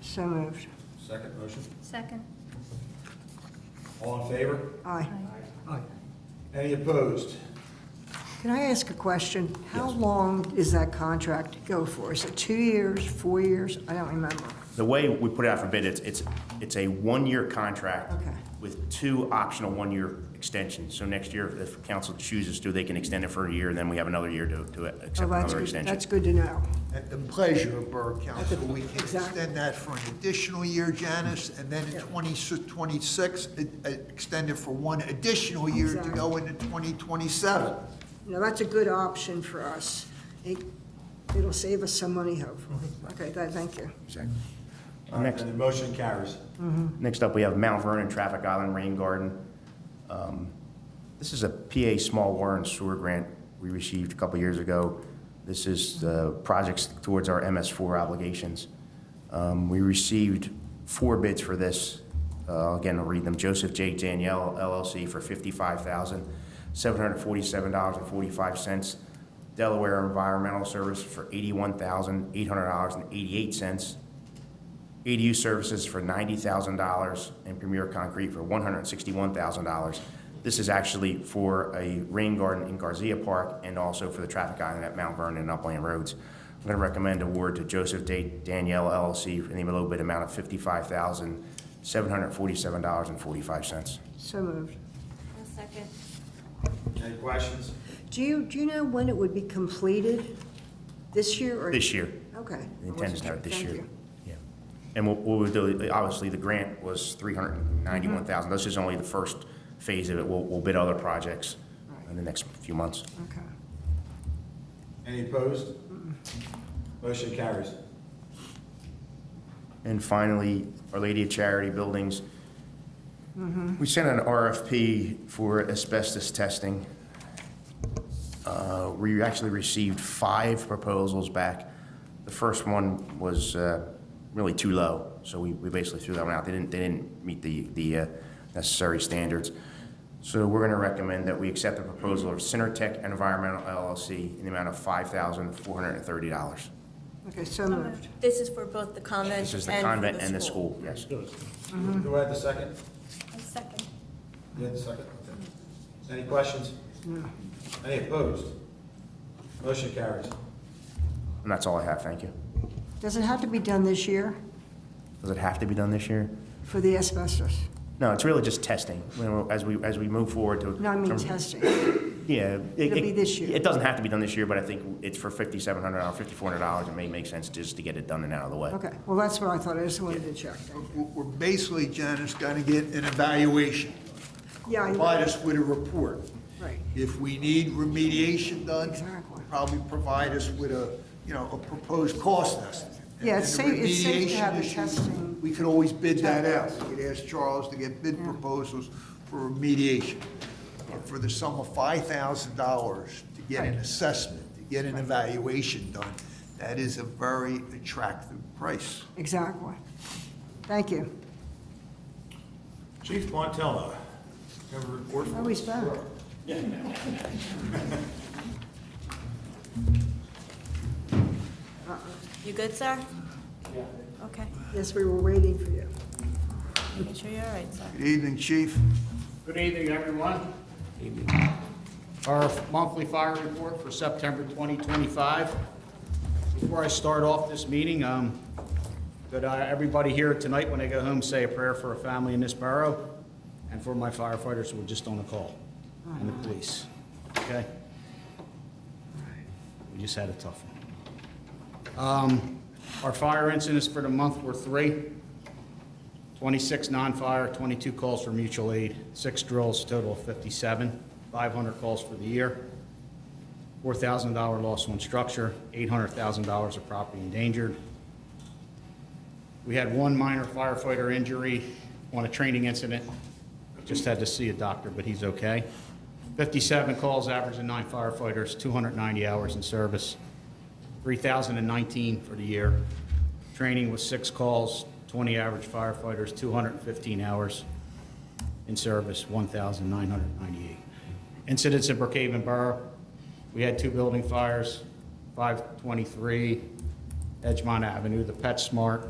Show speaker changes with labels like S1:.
S1: So moved.
S2: Second motion.
S3: Second.
S2: All in favor?
S1: Aye.
S2: Any opposed?
S1: Can I ask a question? How long is that contract go for? Is it two years, four years? I don't remember.
S4: The way we put it out for bid, it's, it's, it's a one-year contract
S1: Okay.
S4: with two optional one-year extensions. So next year, if council chooses to, they can extend it for a year, and then we have another year to, to
S1: Oh,
S4: accept
S1: that's
S4: another
S1: good.
S4: extension.
S1: That's good to know.
S5: At the pleasure of Borough Council, we can
S1: Exactly.
S5: extend that for an additional year, Janice, and then in
S1: Yeah.
S5: 2026, extend it for one additional year to go into 2027.
S1: Now, that's a good option for us. It, it'll save us some money, hopefully. Okay, that, thank you.
S4: Mm-hmm. Exactly.
S2: All right,
S4: Next.
S2: And the motion carries.
S4: Next up, we have Mount Vernon Traffic Island Rain Garden. Um, This is a PA Small Water and Sewer Grant we received a couple years ago. This is the projects towards our MS4 obligations. Um, We received four bids for this. Uh, Again, I'll read them. Joseph J. Danielle LLC for $55,747.45. Delaware Environmental Service for $81,800.88. ADU E services for ninety thousand dollars and Premier Concrete for one hundred and sixty-one thousand dollars. This is actually for a rain garden in Garcia Park and also for the traffic island at Mount Vernon and Upland Roads. I'm going to recommend award to Joseph Da- Danielle LLC in the low bid amount of fifty-five thousand, seven hundred and forty-seven dollars and forty-five cents.
S1: So moved.
S3: I'll second.
S2: Any questions?
S1: Do you, do you know when it would be completed? This year or?
S4: This year,
S1: Okay. I
S4: the intent
S1: wasn't
S4: is to have it this
S1: sure.
S4: year.
S1: Thank you.
S4: Yeah. And what what we'll do, obviously, the grant was three hundred and ninety-one thousand.
S1: Mm-hmm.
S4: This is only the first phase of it. We'll, we'll bid other projects in the next few months.
S1: Okay.
S2: Any opposed? Motion carries.
S4: And finally, Our Lady of Charity Buildings. We sent an RFP for asbestos testing. Uh, We actually received five proposals back. The first one was uh, really too low, so we we basically threw that one out. They didn't, they didn't meet the the uh, necessary standards. So we're going to recommend that we accept the proposal of Centertech Environmental LLC in the amount of $5,430.
S1: Okay, so moved.
S3: This is for both the convent and
S4: This is the convent and the school, yes.
S2: Do I have the second?
S3: I'll second.
S2: You have the second? Okay. Any questions? Any opposed? Motion carries.
S4: And that's all I have, thank you.
S1: Does it have to be done this year
S4: Does it have to be done this year?
S1: for the asbestos?
S4: No, it's really just testing, you know, as we, as we move forward to.
S1: No, I mean
S4: from-
S1: testing.
S4: Yeah.
S1: It'll be this year.
S4: It doesn't have to be done this year, but I think it's for fifty-seven hundred dollars, fifty-four hundred dollars, it may make sense just to get it done and out of the way.
S1: Okay, well, that's what I thought. I just wanted to check. Thank you.
S5: We're we're basically, Janice, going to get an evaluation.
S1: Yeah, you're
S5: Provide us with a report.
S1: right.
S5: If we need remediation done,
S1: Exactly.
S5: probably provide us with a, you know, a proposed cost estimate.
S1: Yeah, it's
S5: And the
S1: safe- it's safe to
S5: remediation
S1: have the
S5: issue,
S1: testing-
S5: We could always bid that out. We could ask Charles to get bid proposals for remediation. But for the sum of five thousand dollars to get an assessment, to get an evaluation done, that is a very attractive price.
S1: Exactly. Thank you.
S2: Chief Montello, you have a report for
S1: Oh, he's
S2: us?
S1: back.
S3: You good, sir? Yeah. Okay,
S1: Yes, we were waiting for you.
S3: making sure you're all right, sir.
S5: Good evening, Chief.
S6: Good evening, everyone. Our monthly fire report for September 2025. Before I start off this meeting, um, could uh, everybody here tonight, when they go home, say a prayer for a family in this borough and for my firefighters who were just on a call and the police, okay? We just had a tough one. Um, Our fire incidents for the month were three. 26 non-fire, 22 calls for mutual aid, six drills, total of 57, 500 calls for the year, $4,000 loss on structure, $800,000 of property endangered. We had one minor firefighter injury on a training incident, just had to see a doctor, but he's okay. 57 calls, averaging nine firefighters, 290 hours in service, 3,019 for the year. Training was six calls, 20 average firefighters, 215 hours in service, 1,998. Incidents in Brookhaven Borough, we had two building fires, 523 Edgemont Avenue, the PetSmart,